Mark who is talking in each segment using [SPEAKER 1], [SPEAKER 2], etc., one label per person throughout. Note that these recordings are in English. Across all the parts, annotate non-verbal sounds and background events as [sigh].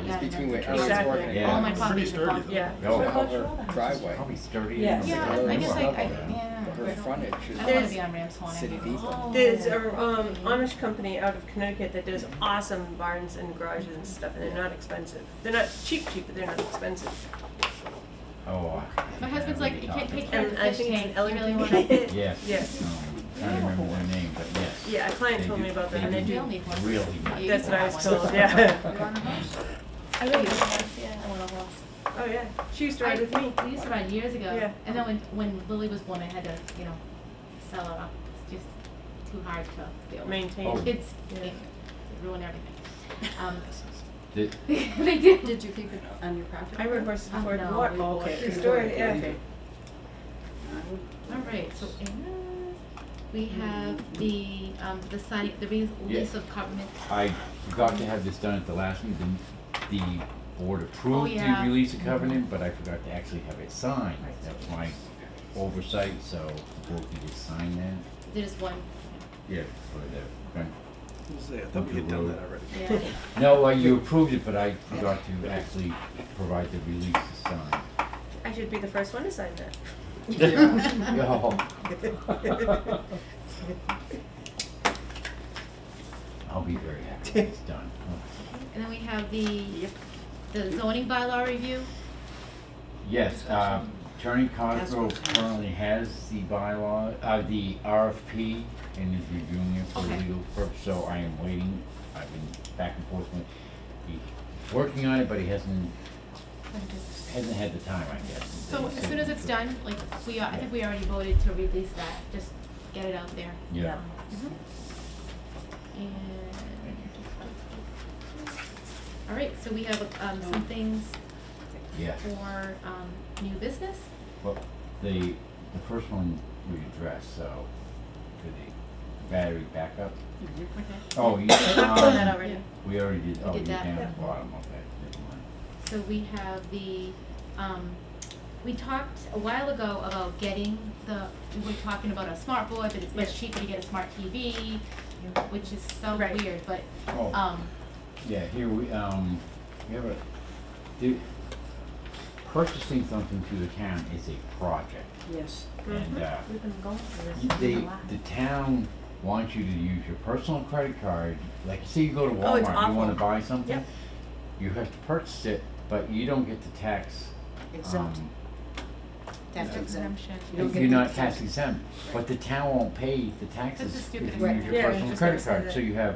[SPEAKER 1] between where
[SPEAKER 2] Between
[SPEAKER 1] Ellen's
[SPEAKER 2] Exactly.
[SPEAKER 1] working and
[SPEAKER 3] Yeah.
[SPEAKER 1] mine.
[SPEAKER 3] It's
[SPEAKER 2] pretty
[SPEAKER 4] sturdy, though.
[SPEAKER 2] Yeah.
[SPEAKER 3] No.
[SPEAKER 1] How her driveway,
[SPEAKER 3] Probably sturdy.
[SPEAKER 2] Yes.
[SPEAKER 4] Yeah,
[SPEAKER 1] I guess I-
[SPEAKER 4] I- yeah.
[SPEAKER 1] her frontage
[SPEAKER 4] I don't
[SPEAKER 1] is.
[SPEAKER 4] wanna
[SPEAKER 2] There's-
[SPEAKER 4] be on Rams Horn.
[SPEAKER 1] City Depot.
[SPEAKER 2] There's a um, Amish company out of Connecticut that does awesome barns and garages and stuff, and they're not expensive. They're not cheap, cheap, but they're not expensive.
[SPEAKER 3] Oh. I-
[SPEAKER 4] My husband's
[SPEAKER 3] I
[SPEAKER 4] like,
[SPEAKER 3] really
[SPEAKER 4] you can't
[SPEAKER 3] talked
[SPEAKER 4] take care
[SPEAKER 3] about
[SPEAKER 4] of
[SPEAKER 2] And
[SPEAKER 4] the
[SPEAKER 2] I
[SPEAKER 4] fish
[SPEAKER 2] think it's an
[SPEAKER 4] tank, you really
[SPEAKER 2] elegant.
[SPEAKER 4] want to. [laughs]
[SPEAKER 3] it. Yes.
[SPEAKER 2] Yes.
[SPEAKER 3] Um, I don't remember their name, but yes.
[SPEAKER 2] Yeah, a client told me about that, and I
[SPEAKER 4] You'll
[SPEAKER 2] do.
[SPEAKER 4] need one.
[SPEAKER 3] Really
[SPEAKER 4] You
[SPEAKER 2] That's
[SPEAKER 4] can
[SPEAKER 2] what I
[SPEAKER 4] have
[SPEAKER 2] was
[SPEAKER 4] one.
[SPEAKER 2] told, yeah.
[SPEAKER 4] You want a horse?
[SPEAKER 2] I
[SPEAKER 4] Yeah,
[SPEAKER 2] really,
[SPEAKER 4] I want a horse.
[SPEAKER 2] oh yeah, she used to ride with me.
[SPEAKER 4] I- We used to ride years ago.
[SPEAKER 2] Yeah.
[SPEAKER 4] And then when, when Lily was born, I had to, you know, sell her up. It's just too hard to deal with.
[SPEAKER 3] Oh.
[SPEAKER 2] Maintain.
[SPEAKER 4] Kids
[SPEAKER 2] Yeah.
[SPEAKER 4] they ruin everything. Um,
[SPEAKER 3] [laughs]
[SPEAKER 4] [laughs]
[SPEAKER 3] Did-
[SPEAKER 4] They do.
[SPEAKER 5] Did you keep it on your property?
[SPEAKER 2] I rode horses
[SPEAKER 4] Oh,
[SPEAKER 2] before
[SPEAKER 4] no,
[SPEAKER 2] I
[SPEAKER 4] we
[SPEAKER 2] could
[SPEAKER 4] bought
[SPEAKER 2] walk.
[SPEAKER 4] it.
[SPEAKER 2] True story, yeah.
[SPEAKER 3] Okay.
[SPEAKER 4] All right, so Anna, we have the, um, the signing, the re-
[SPEAKER 3] Yeah.
[SPEAKER 4] lease of covenant.
[SPEAKER 3] I forgot to have this done at the last meeting. The the board approved the
[SPEAKER 4] Oh, yeah.
[SPEAKER 3] release of covenant, but I forgot to actually have it signed. That's my oversight, so the board can just sign that.
[SPEAKER 4] There's one,
[SPEAKER 3] Yeah. For the, grant-
[SPEAKER 6] I thought we had done that already.
[SPEAKER 4] yeah.
[SPEAKER 3] no, uh, you approved it, but I forgot to actually provide the release to sign. [laughs]
[SPEAKER 2] I should be the first one to sign that.
[SPEAKER 3] Yo. I'll be very happy when it's done.
[SPEAKER 4] And then we have the, the zoning bylaw review.
[SPEAKER 3] Yes, uh, Attorney Cosgrove currently has the bylaw, uh, the RFP and is reviewing it for
[SPEAKER 4] Okay.
[SPEAKER 3] legal purpose, so I am waiting. I've been back and forth with, he's working on it, but he hasn't, hasn't had the time, I guess.
[SPEAKER 4] So as soon as it's done, like, we, are- I think we already voted to release that, just get it out there. Mm-hmm.
[SPEAKER 3] Yeah.
[SPEAKER 4] And, all right, so we have, um, some things
[SPEAKER 3] Yeah.
[SPEAKER 4] for, um, new business.
[SPEAKER 3] Well, the, the first one we addressed, so, to the battery backup.
[SPEAKER 4] Okay.
[SPEAKER 2] [coughs]
[SPEAKER 3] Oh,
[SPEAKER 2] [coughs]
[SPEAKER 3] you,
[SPEAKER 2] I've done that
[SPEAKER 3] um,
[SPEAKER 2] already.
[SPEAKER 3] we already did, oh,
[SPEAKER 4] did
[SPEAKER 3] you're
[SPEAKER 4] that.
[SPEAKER 3] down at
[SPEAKER 2] Yeah.
[SPEAKER 3] the bottom, okay, never mind.
[SPEAKER 4] So we have the, um, we talked a while ago about getting the, we were talking about a smart board, that it's much
[SPEAKER 2] Yeah.
[SPEAKER 4] cheaper to get a smart TV, which is so
[SPEAKER 2] Right.
[SPEAKER 4] weird, but,
[SPEAKER 3] Oh.
[SPEAKER 4] um,
[SPEAKER 3] Yeah, here we, um, we have a, the, purchasing something to the town is a project.
[SPEAKER 5] Yes.
[SPEAKER 2] Mm-hmm.
[SPEAKER 3] And, uh,
[SPEAKER 5] We've been going for
[SPEAKER 3] you- they, the town wants you to use your personal credit card, like, say you go to
[SPEAKER 2] Oh, it's
[SPEAKER 3] Walmart, you wanna
[SPEAKER 2] awful.
[SPEAKER 3] buy something.
[SPEAKER 2] Yep.
[SPEAKER 3] You have to purchase it, but you don't get the tax,
[SPEAKER 5] Exempt,
[SPEAKER 3] um,
[SPEAKER 5] tax exempt.
[SPEAKER 4] exemption.
[SPEAKER 5] You don't
[SPEAKER 3] If
[SPEAKER 5] get
[SPEAKER 3] you're
[SPEAKER 5] the
[SPEAKER 3] not
[SPEAKER 5] tax.
[SPEAKER 3] tax exempt, but the town won't pay the
[SPEAKER 4] the
[SPEAKER 3] taxes if
[SPEAKER 4] stupidest
[SPEAKER 3] you
[SPEAKER 5] thing.
[SPEAKER 3] use your
[SPEAKER 2] Yeah, I was
[SPEAKER 3] personal
[SPEAKER 2] just gonna
[SPEAKER 3] credit
[SPEAKER 2] say
[SPEAKER 3] card,
[SPEAKER 2] that.
[SPEAKER 3] so you have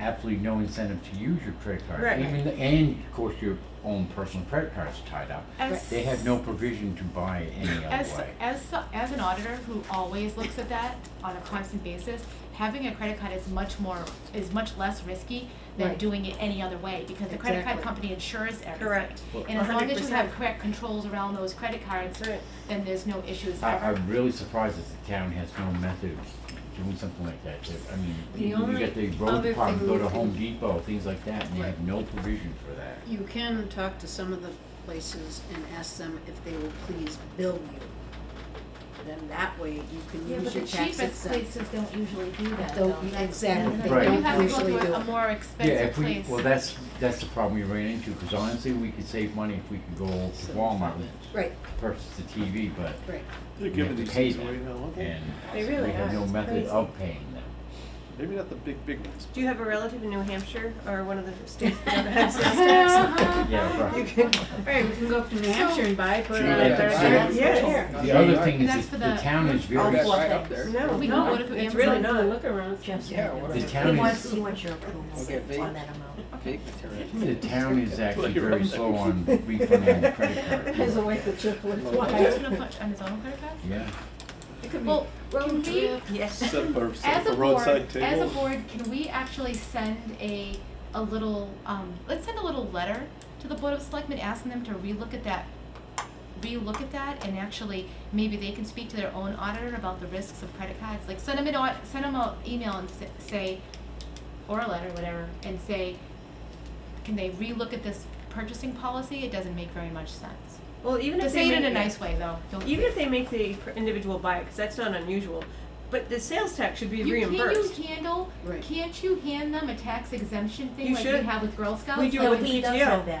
[SPEAKER 3] absolutely no incentive to use your credit card.
[SPEAKER 2] Right.
[SPEAKER 3] Even, and of course, your own personal credit card's tied up.
[SPEAKER 4] As-
[SPEAKER 3] They have no provision to buy it any
[SPEAKER 4] As,
[SPEAKER 3] other way.
[SPEAKER 4] as, as an auditor who always looks at that on a constant basis, having a credit card is much more, is much less risky than
[SPEAKER 5] Right.
[SPEAKER 4] doing it any other way, because the credit card
[SPEAKER 5] Exactly.
[SPEAKER 4] company insures everything.
[SPEAKER 2] Correct.
[SPEAKER 4] And as long as you have
[SPEAKER 2] 100%.
[SPEAKER 4] correct controls around those credit cards,
[SPEAKER 2] That's right.
[SPEAKER 4] then there's no issues
[SPEAKER 3] I,
[SPEAKER 4] ever.
[SPEAKER 3] I'm really surprised that the town has no method of doing something like that. They- I mean,
[SPEAKER 5] The
[SPEAKER 3] you you
[SPEAKER 5] only
[SPEAKER 3] get the road
[SPEAKER 5] other
[SPEAKER 3] department,
[SPEAKER 5] thing
[SPEAKER 3] go
[SPEAKER 5] you
[SPEAKER 3] to
[SPEAKER 5] can-
[SPEAKER 3] Home Depot, things like that, and they have
[SPEAKER 5] Right.
[SPEAKER 3] no provision for that.
[SPEAKER 5] You can talk to some of the places and ask them if they will please bill you. Then that way you can
[SPEAKER 4] Yeah, but
[SPEAKER 5] use
[SPEAKER 4] the
[SPEAKER 5] your tax
[SPEAKER 4] cheapest
[SPEAKER 5] exempt.
[SPEAKER 4] places don't usually do that
[SPEAKER 5] Don't-
[SPEAKER 4] though. That's-
[SPEAKER 5] exactly.
[SPEAKER 4] that's
[SPEAKER 3] They
[SPEAKER 4] another-
[SPEAKER 3] don't
[SPEAKER 4] You have to go
[SPEAKER 5] usually
[SPEAKER 4] to
[SPEAKER 5] do
[SPEAKER 4] a- a
[SPEAKER 5] it.
[SPEAKER 4] more
[SPEAKER 3] Yeah,
[SPEAKER 4] expensive
[SPEAKER 3] if we,
[SPEAKER 4] place.
[SPEAKER 3] well, that's, that's the problem we ran into, because honestly, we could save money if we could go to Walmart and
[SPEAKER 5] Right,
[SPEAKER 3] purchase the TV, but
[SPEAKER 5] right.
[SPEAKER 6] They're
[SPEAKER 3] we have
[SPEAKER 6] giving
[SPEAKER 3] to
[SPEAKER 6] these
[SPEAKER 3] pay
[SPEAKER 6] things away
[SPEAKER 3] them.
[SPEAKER 6] now, aren't they?
[SPEAKER 3] And
[SPEAKER 2] They really
[SPEAKER 3] we have
[SPEAKER 2] are.
[SPEAKER 3] no
[SPEAKER 2] It's
[SPEAKER 3] method
[SPEAKER 2] crazy.
[SPEAKER 3] of paying them.
[SPEAKER 6] Maybe not the big, big ones.
[SPEAKER 2] Do you have a relative in New Hampshire or one of the states [laughs] that don't
[SPEAKER 4] [laughs]
[SPEAKER 2] have sales tax?
[SPEAKER 3] Yeah,
[SPEAKER 2] You
[SPEAKER 3] right.
[SPEAKER 2] can,
[SPEAKER 5] Right, we can go up to New
[SPEAKER 4] Hampshire
[SPEAKER 5] and buy, put
[SPEAKER 6] it on a
[SPEAKER 3] thirty
[SPEAKER 2] yeah, yeah.
[SPEAKER 3] The other thing
[SPEAKER 4] That's
[SPEAKER 3] is,
[SPEAKER 4] for
[SPEAKER 3] that the
[SPEAKER 4] the-
[SPEAKER 3] town is
[SPEAKER 1] Oh,
[SPEAKER 3] very,
[SPEAKER 1] that's right
[SPEAKER 4] floor
[SPEAKER 1] up there.
[SPEAKER 4] things.
[SPEAKER 2] no,
[SPEAKER 4] We
[SPEAKER 2] we
[SPEAKER 4] can go to
[SPEAKER 2] it's really
[SPEAKER 4] Amazon.
[SPEAKER 2] not.
[SPEAKER 4] Look around.
[SPEAKER 1] Yeah, what
[SPEAKER 3] the
[SPEAKER 1] is it?
[SPEAKER 3] town is,
[SPEAKER 5] your approval
[SPEAKER 1] Okay, they- on that
[SPEAKER 5] amount.
[SPEAKER 1] Big material.
[SPEAKER 3] the town is actually
[SPEAKER 6] [laughs] Like your
[SPEAKER 3] very
[SPEAKER 6] own
[SPEAKER 3] slow on refunding credit
[SPEAKER 5] There's a
[SPEAKER 3] cards.
[SPEAKER 5] way the chip would
[SPEAKER 4] Oh,
[SPEAKER 5] fly.
[SPEAKER 4] that's gonna punch on his own credit card?
[SPEAKER 3] Yeah,
[SPEAKER 4] Well, can we,
[SPEAKER 2] Yes.
[SPEAKER 6] Set up a, set
[SPEAKER 4] as a
[SPEAKER 6] up a
[SPEAKER 4] board, as
[SPEAKER 6] roadside
[SPEAKER 4] a
[SPEAKER 6] table.
[SPEAKER 4] board, can we actually send a, a little, um, let's send a little letter to the Board of Selectmen, asking them to relook at that, relook at that, and actually, maybe they can speak to their own auditor about the risks of credit cards, like, send them an au, send them an email and s- say, or a letter, whatever, and say, can they relook at this purchasing policy? It doesn't make very much sense.
[SPEAKER 2] Well, even
[SPEAKER 4] To
[SPEAKER 2] if they
[SPEAKER 4] say it
[SPEAKER 2] make
[SPEAKER 4] in a
[SPEAKER 2] it-
[SPEAKER 4] nice way, though, don't.
[SPEAKER 2] Even if they make the per- individual buy it, because that's not unusual, but the sales tax should be
[SPEAKER 4] You-
[SPEAKER 2] reimbursed.
[SPEAKER 4] Can you handle,
[SPEAKER 5] Right.
[SPEAKER 4] can't you hand them a tax exemption
[SPEAKER 2] You
[SPEAKER 4] thing like we
[SPEAKER 2] should.
[SPEAKER 4] have with Girl Scouts?
[SPEAKER 2] We do
[SPEAKER 4] Like,
[SPEAKER 2] it with PTO.